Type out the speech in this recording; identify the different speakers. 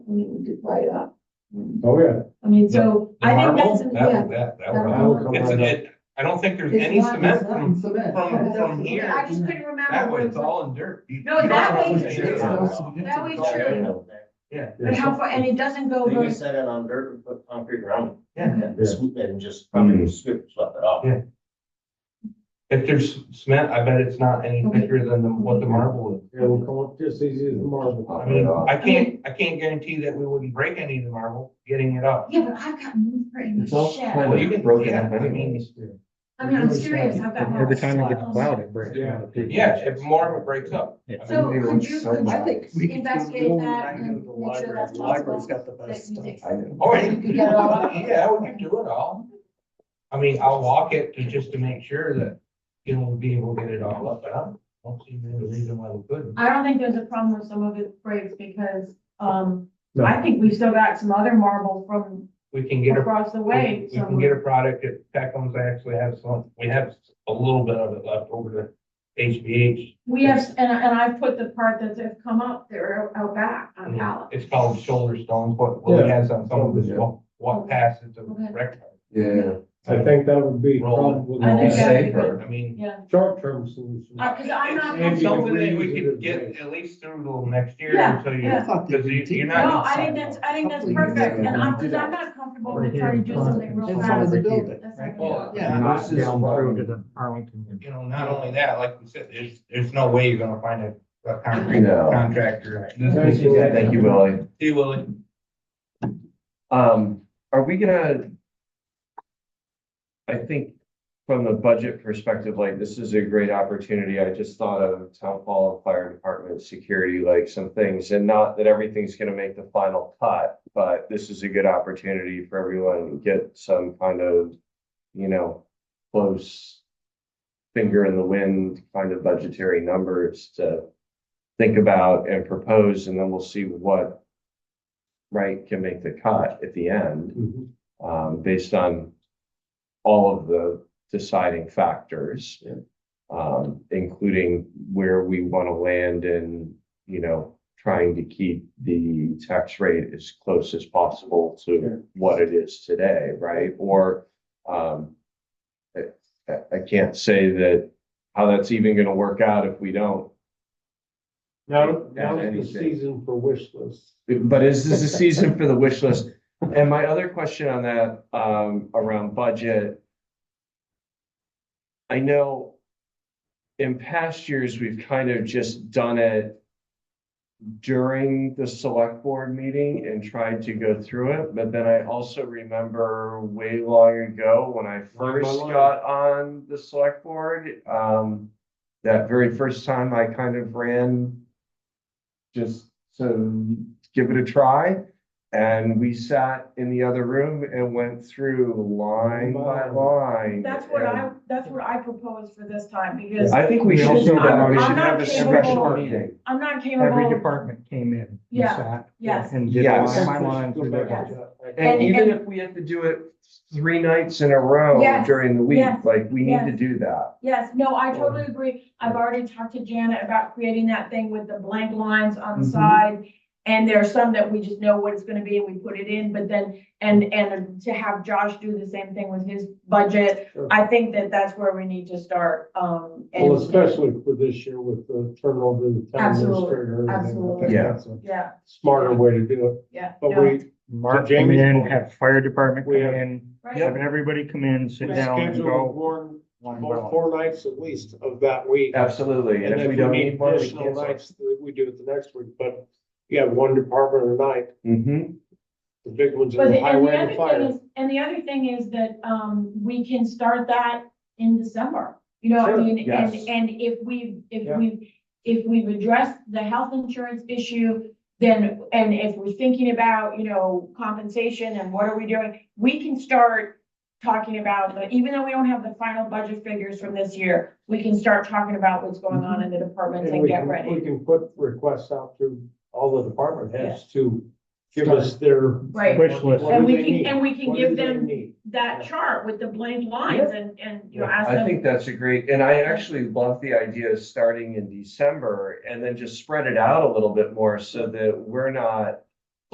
Speaker 1: we would do right up.
Speaker 2: Oh, yeah.
Speaker 1: I mean, so I think that's, yeah.
Speaker 3: That, that, that,
Speaker 1: That
Speaker 3: would-
Speaker 1: would-
Speaker 3: it's a, it, I don't think there's
Speaker 4: It's
Speaker 3: any
Speaker 4: not-
Speaker 3: cement
Speaker 4: it's not
Speaker 3: from,
Speaker 4: cement.
Speaker 3: from, from
Speaker 1: Yeah,
Speaker 3: here,
Speaker 1: I just couldn't remember.
Speaker 3: that way,
Speaker 1: where-
Speaker 3: it's all in dirt. You-
Speaker 1: No,
Speaker 3: you
Speaker 1: that
Speaker 3: don't
Speaker 1: way
Speaker 3: know
Speaker 1: it's
Speaker 3: what it is.
Speaker 1: true. That way true,
Speaker 3: Yeah.
Speaker 1: but how far, and it doesn't go
Speaker 5: They
Speaker 1: very,
Speaker 5: just set it on dirt and put concrete around it.
Speaker 3: Yeah.
Speaker 5: And swoop it and just probably scoop, slap it off.
Speaker 3: Yeah. If there's cement, I bet it's not any thicker than the- what the marble is.
Speaker 2: It'll come up just easy as marble.
Speaker 3: I mean, I can't, I can't guarantee that we wouldn't break any of the marble getting it up.
Speaker 1: yeah, but I've got moved pretty
Speaker 6: It's all
Speaker 1: much shed.
Speaker 6: kind
Speaker 3: Well, you
Speaker 6: of
Speaker 3: can-
Speaker 6: broken
Speaker 3: yeah,
Speaker 6: up
Speaker 3: I mean,
Speaker 6: anyways.
Speaker 1: I mean, I'm serious, I've got.
Speaker 6: Every time it gets
Speaker 1: marbles.
Speaker 6: plowed, it breaks.
Speaker 2: Yeah.
Speaker 3: Yeah, if more of it breaks up.
Speaker 6: Yeah.
Speaker 1: So
Speaker 6: Maybe
Speaker 1: could
Speaker 6: once
Speaker 1: you,
Speaker 6: so
Speaker 1: could
Speaker 6: much.
Speaker 1: you investigate that and make sure that's possible? That you dig-
Speaker 3: Oh, yeah,
Speaker 1: You get it all up?
Speaker 3: yeah, we can do it all. I mean, I'll walk it to, just to make sure that, you know, we'll be able to get it all up, but I don't see any reason why we couldn't.
Speaker 7: I don't think there's a problem with some of it breaks because, um,
Speaker 2: No.
Speaker 7: I think we've still got some other marble from
Speaker 3: We can get a
Speaker 7: across the
Speaker 3: We can-
Speaker 7: way.
Speaker 3: We can get a product at Peckham's, I actually have some, we have a little bit of it left over to HBH.
Speaker 7: We have, and, I- and I put the part that's have come up there out back on pallet.
Speaker 3: It's called shoulder stones, but Willie
Speaker 2: Yeah.
Speaker 3: has on some of his walk, walk passes of
Speaker 7: Okay.
Speaker 3: rec.
Speaker 6: Yeah.
Speaker 2: I think that would be
Speaker 3: Roll
Speaker 2: probably.
Speaker 7: I think
Speaker 6: It's
Speaker 7: that'd be
Speaker 6: safer.
Speaker 3: I mean.
Speaker 7: Yeah,
Speaker 2: Short-term solution.
Speaker 7: Uh, cause I'm not,
Speaker 2: Maybe
Speaker 3: It's
Speaker 2: you
Speaker 3: something
Speaker 2: can
Speaker 3: that we
Speaker 2: reuse it
Speaker 3: could
Speaker 2: as
Speaker 3: get
Speaker 2: waste.
Speaker 3: at least through till next year
Speaker 7: Yeah,
Speaker 3: until you,
Speaker 7: yeah.
Speaker 3: because you, you're
Speaker 7: no,
Speaker 3: not.
Speaker 7: I think that's, I think that's perfect, and I'm, cause I'm not comfortable with trying to do something real
Speaker 4: In front of
Speaker 7: fast.
Speaker 4: the building.
Speaker 7: That's not gonna
Speaker 3: Well,
Speaker 7: work.
Speaker 4: Yeah.
Speaker 6: Not
Speaker 2: versus,
Speaker 6: down
Speaker 2: um,
Speaker 6: through to the Arlington.
Speaker 3: You know, not only that, like we said, there's, there's no way you're gonna find a, a concrete
Speaker 6: No.
Speaker 3: contractor.
Speaker 2: Thank you.
Speaker 6: Yeah, thank you, Willie.
Speaker 3: See, Willie,
Speaker 6: Um, are we gonna? I think from the budget perspective, like this is a great opportunity. I just thought of town hall, and fire department, security, like some things. And not that everything's gonna make the final cut, but this is a good opportunity for everyone to get some kind of, you know, close finger in the wind kind of budgetary numbers to think about and propose, and then we'll see what right, can make the cut at the end,
Speaker 2: Mhm.
Speaker 6: um, based on all of the deciding factors.
Speaker 2: Yeah.
Speaker 6: Um, including where we want to land and, you know, trying to keep the tax rate as close as possible
Speaker 2: Yeah.
Speaker 6: to what it is today, right? Or, um, I, I- I can't say that, how that's even going to work out if we don't
Speaker 2: Now, now
Speaker 6: Anything.
Speaker 2: is the season for wish lists.
Speaker 6: but is this a season for the wish list? And my other question on that, um, around budget. I know in past years, we've kind of just done it during the select board meeting and tried to go through it, but then I also remember way long ago when I
Speaker 2: Long, long,
Speaker 6: first
Speaker 2: long.
Speaker 6: got on the select board, um, that very first time I kind of ran just to give it a try. And we sat in the other room and went through line by line.
Speaker 7: That's what I, that's what I propose for this time, because
Speaker 6: And I think we
Speaker 7: Yeah.
Speaker 6: should do that. We
Speaker 7: I'm
Speaker 6: should
Speaker 7: not
Speaker 6: have a
Speaker 7: capable-
Speaker 6: special meeting.
Speaker 7: I'm not
Speaker 8: Every
Speaker 7: capable,
Speaker 8: department came in. and
Speaker 7: Yeah,
Speaker 8: sat
Speaker 7: yes.
Speaker 8: And did
Speaker 6: Yes.
Speaker 8: line by line
Speaker 2: Go
Speaker 8: through
Speaker 2: back
Speaker 8: their
Speaker 2: to
Speaker 7: Yes.
Speaker 2: that. I think
Speaker 6: And
Speaker 7: And-
Speaker 6: even
Speaker 7: and-
Speaker 6: if we have to do it three nights in a row
Speaker 7: Yes.
Speaker 6: during the week,
Speaker 7: Yes.
Speaker 6: like we need to
Speaker 7: Yes.
Speaker 6: do that.
Speaker 7: yes, no, I totally agree. I've already talked to Janet about creating that thing with the blank lines on the
Speaker 2: Mhm.
Speaker 7: side. And there are some that we just know what it's gonna be and we put it in, but then, and, and to have Josh do the same thing with his budget.
Speaker 2: Sure.
Speaker 7: I think that that's where we need to start, um. and-
Speaker 2: Well, especially for this year with the turnover of the town
Speaker 7: Absolutely,
Speaker 2: administrator. and everything. I think
Speaker 7: absolutely.
Speaker 6: Yeah.
Speaker 2: that's a
Speaker 7: Yeah,
Speaker 2: Smarter way to do it,
Speaker 7: yeah.
Speaker 2: but
Speaker 7: no,
Speaker 2: we,
Speaker 8: Mark came
Speaker 2: James-
Speaker 8: in, have fire department come
Speaker 2: We have-
Speaker 8: in,
Speaker 7: right.
Speaker 8: have everybody come in, sit
Speaker 2: we
Speaker 8: down and
Speaker 2: schedule
Speaker 8: go.
Speaker 2: one,
Speaker 8: line by
Speaker 2: four,
Speaker 8: line.
Speaker 2: four nights at least of that week.
Speaker 6: Absolutely. And if we don't need one, we
Speaker 2: Additional
Speaker 6: cancel.
Speaker 2: nights, that we do it the next week, but you have one department a night,
Speaker 6: Mhm.
Speaker 2: the big ones are
Speaker 7: But
Speaker 2: the
Speaker 7: the- and the
Speaker 2: highway and the
Speaker 7: other
Speaker 2: fire.
Speaker 7: thing is, and the other thing is that, um, we can start that in December. You know, I
Speaker 2: Sure,
Speaker 7: mean, and,
Speaker 6: yes.
Speaker 7: and if we, if
Speaker 2: Yeah.
Speaker 7: we, if we've addressed the health insurance issue, then, and if we're thinking about, you know, compensation and what are we doing, we can start talking about, the even though we don't have the final budget figures from this year, we can start talking about what's going on in the departments
Speaker 2: And
Speaker 7: and
Speaker 2: we
Speaker 7: get
Speaker 2: can, we
Speaker 7: ready.
Speaker 2: can put requests out to all the department heads to give
Speaker 8: Start.
Speaker 2: us their.
Speaker 7: Right.
Speaker 8: Wish list.
Speaker 2: What
Speaker 7: And
Speaker 2: do
Speaker 7: we
Speaker 2: they
Speaker 7: can,
Speaker 2: need?
Speaker 7: and we can
Speaker 2: What do
Speaker 7: give
Speaker 2: they
Speaker 7: them
Speaker 2: need?
Speaker 7: that chart with the blank lines and, and, you know,
Speaker 2: Yeah.
Speaker 7: ask them.
Speaker 6: I think that's a great, and I actually love the idea of starting in December and then just spread it out a little bit more so that we're not